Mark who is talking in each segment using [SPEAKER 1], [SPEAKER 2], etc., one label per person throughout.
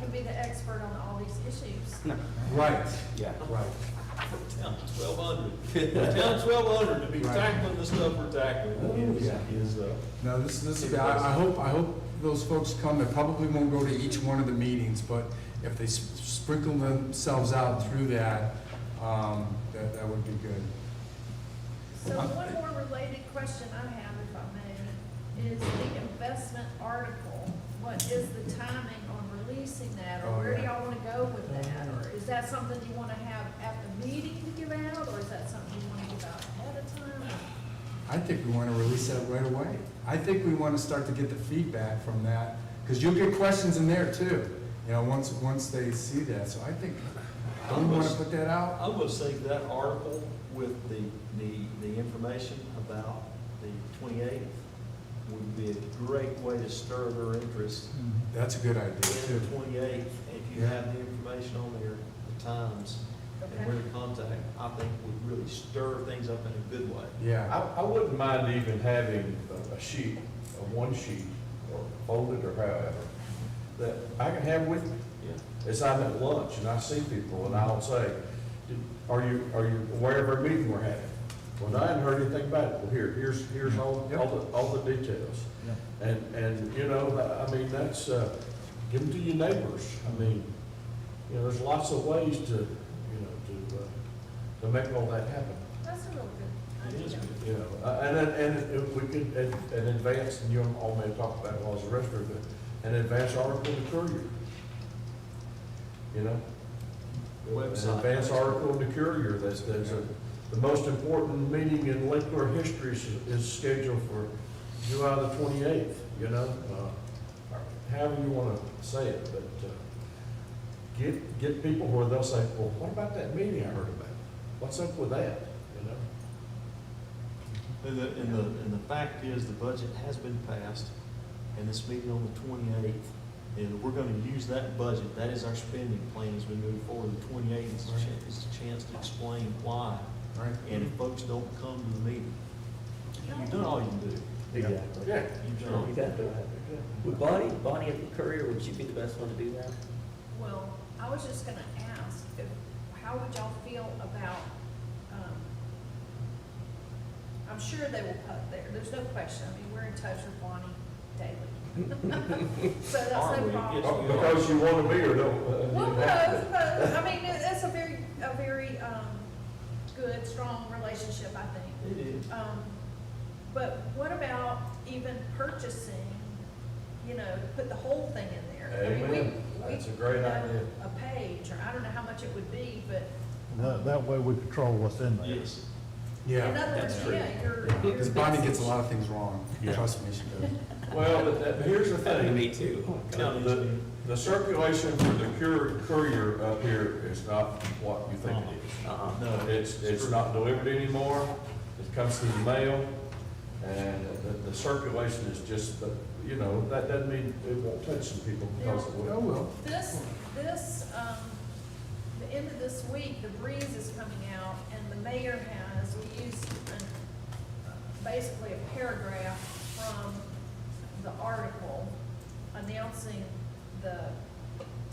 [SPEAKER 1] could be the expert on all these issues.
[SPEAKER 2] Right,
[SPEAKER 3] Yeah.
[SPEAKER 2] right.
[SPEAKER 4] Town twelve hundred. Town twelve hundred to be
[SPEAKER 2] Right.
[SPEAKER 4] tackling the stuff we're tackling
[SPEAKER 2] Oh,
[SPEAKER 4] is,
[SPEAKER 2] yeah.
[SPEAKER 4] is, uh,
[SPEAKER 2] No, this, this, will be- I, I hope, I hope those folks come, they probably won't go to each one of the meetings, but if they s- sprinkle themselves out through that, um, that, that would be good.
[SPEAKER 1] So one more related question I have, if I may, is the investment article. What is the timing on releasing that,
[SPEAKER 2] Oh,
[SPEAKER 1] or where do
[SPEAKER 2] yeah. Oh,
[SPEAKER 1] y'all want to go with that? Or is that something you want to have at the meeting to give out, or is that something you want to give out ahead of time?
[SPEAKER 2] I think we want to release that right away. I think we want to start to get the feedback from that, because you'll get questions in there too, you know, once, once they see that, so I think, don't we want to put that out?
[SPEAKER 4] I would say that article with the, the, the information about the twenty-eighth would be a great way to stir their interest
[SPEAKER 2] That's a good idea
[SPEAKER 4] in
[SPEAKER 2] too.
[SPEAKER 4] the twenty-eighth. If you have the information on there, the times, and where
[SPEAKER 1] Okay,
[SPEAKER 4] to contact, I think would really stir things up in a good way.
[SPEAKER 2] Yeah,
[SPEAKER 5] I, I wouldn't mind even having a- a sheet, a one sheet, or folded or however, that I can have with me.
[SPEAKER 4] Yeah.
[SPEAKER 5] As I'm at lunch and I see people and I'll say, "Did- are you, are you aware of our meeting we're having? Well, I hadn't heard anything about it. Well, here, here's, here's all, all the, all the details. And, and, you know, I- I mean, that's, uh, give them to your neighbors. I mean, you know, there's lots of ways to, you know, to, uh, to make all that happen.
[SPEAKER 1] that's a real good
[SPEAKER 4] It is
[SPEAKER 1] idea.
[SPEAKER 4] good.
[SPEAKER 5] You know, uh, and, and, and if we could, an an advance, and you all may talk about it while I was a restaurant, but an advance article in the courier. You know? An
[SPEAKER 4] Website.
[SPEAKER 5] advance article in the courier, that's, that's a, the most important meeting in Lakeport history is, is scheduled for July the twenty-eighth, you know? Uh, However you wanna say it, but, uh, get, get people where they'll say, well, what about that meeting I heard about? What's up with that, you know?
[SPEAKER 4] And the, and the, and the fact is, the budget has been passed, and this meeting on the twenty-eighth, and we're gonna use that budget, that is our spending plan as we move forward. The twenty-eighth is a chance, is a chance to explain why,
[SPEAKER 2] right.
[SPEAKER 4] and if folks don't come to the meeting, you've done all you can do.
[SPEAKER 6] Exactly.
[SPEAKER 5] Yeah.
[SPEAKER 4] You've done all
[SPEAKER 6] You
[SPEAKER 4] you
[SPEAKER 6] got to do it. Would Bonnie, Bonnie at the Courier, would you be the best one to do that?
[SPEAKER 1] Well, I was just gonna ask, if, how would y'all feel about, um, I'm sure they will put there, there's no question, I mean, we're in touch with Bonnie daily. So that's
[SPEAKER 4] Are
[SPEAKER 1] no
[SPEAKER 4] we?
[SPEAKER 1] problem.
[SPEAKER 4] Yes.
[SPEAKER 5] Because you want to be or don't?
[SPEAKER 1] Well, no, but, I mean, it- it's a very, a very, um, good, strong relationship, I think.
[SPEAKER 4] can. It is.
[SPEAKER 1] Um, but what about even purchasing, you know, put the whole thing in there? I mean, we-
[SPEAKER 5] Amen.
[SPEAKER 1] we-
[SPEAKER 5] That's a great idea.
[SPEAKER 1] A page, or I don't know how much it would be, but
[SPEAKER 7] That, that way we control what's in there.
[SPEAKER 4] Yes.
[SPEAKER 1] in
[SPEAKER 2] Yeah,
[SPEAKER 1] other words,
[SPEAKER 4] that's true.
[SPEAKER 1] yeah, you're.
[SPEAKER 2] because Bonnie gets a lot of things wrong, trust me, she does.
[SPEAKER 5] Well, but that, but here's the thing,
[SPEAKER 6] Uh, Me too.
[SPEAKER 5] the, the circulation for the courier, courier up here is not what you think it is.
[SPEAKER 6] Uh-uh.
[SPEAKER 4] No,
[SPEAKER 5] It's, it's not delivered anymore, it comes through the mail, and the, the circulation is just, the- you know, that doesn't mean it won't touch some people because it
[SPEAKER 2] Oh,
[SPEAKER 5] will.
[SPEAKER 2] well.
[SPEAKER 1] This, this, um, the end of this week, the breeze is coming out, and the mayor has, we used an- basically a paragraph from the article announcing the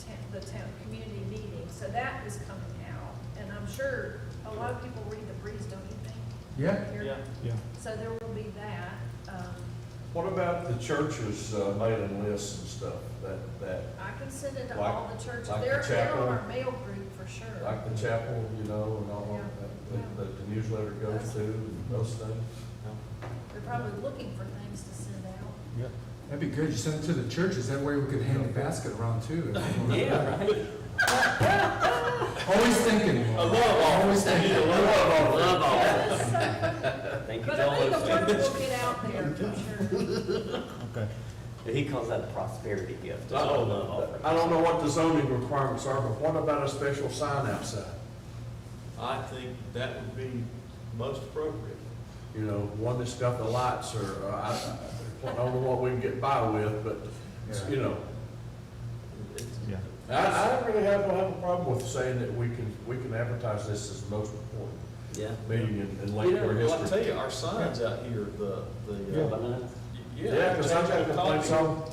[SPEAKER 1] town, the town community meeting, so that is coming out, and I'm sure a lot of people read the breeze, don't you think?
[SPEAKER 2] Yeah,
[SPEAKER 4] Yeah.
[SPEAKER 7] Yeah.
[SPEAKER 1] So there will be that, um,
[SPEAKER 5] What about the church's uh, mailing lists and stuff, that, that,
[SPEAKER 1] I can send it to
[SPEAKER 5] Like-
[SPEAKER 1] all the churches,
[SPEAKER 5] like the
[SPEAKER 1] they're, they're on
[SPEAKER 5] chapel?
[SPEAKER 1] our mail group for sure.
[SPEAKER 5] like the chapel, you know, and all
[SPEAKER 1] Yeah.
[SPEAKER 5] of that, that the newsletter goes to, and those things?
[SPEAKER 1] They're probably looking for things to send out.
[SPEAKER 2] that'd be good, you send it to the churches, that way we could hand the basket around too.
[SPEAKER 6] Yeah, right?
[SPEAKER 2] Always thinking. I love always thinking.
[SPEAKER 6] Love all that. Thank you
[SPEAKER 1] But
[SPEAKER 6] to
[SPEAKER 1] I
[SPEAKER 6] all
[SPEAKER 1] think the
[SPEAKER 6] those
[SPEAKER 1] word
[SPEAKER 6] things.
[SPEAKER 1] will get out there for sure.
[SPEAKER 7] Okay.
[SPEAKER 6] He calls that a prosperity gift. It's all Oh, love offering.
[SPEAKER 5] I don't know what the zoning requirements are, but what about a special sign outside?
[SPEAKER 4] I think that would be most appropriate.
[SPEAKER 5] You know, one that's got the lights or, or I, I don't know what we can get by with, but, you know.
[SPEAKER 4] It's-
[SPEAKER 7] Yeah.
[SPEAKER 5] I, I don't really have, don't have a problem with saying that we can, we can advertise this as the most important
[SPEAKER 6] Yeah.
[SPEAKER 5] meeting in, in
[SPEAKER 4] You know,
[SPEAKER 5] Lakeport
[SPEAKER 4] well, I tell
[SPEAKER 5] history.
[SPEAKER 4] you, our signs out here, the, the. uh,
[SPEAKER 6] Bananas.
[SPEAKER 4] y-
[SPEAKER 5] Yeah, because I've got complaints on,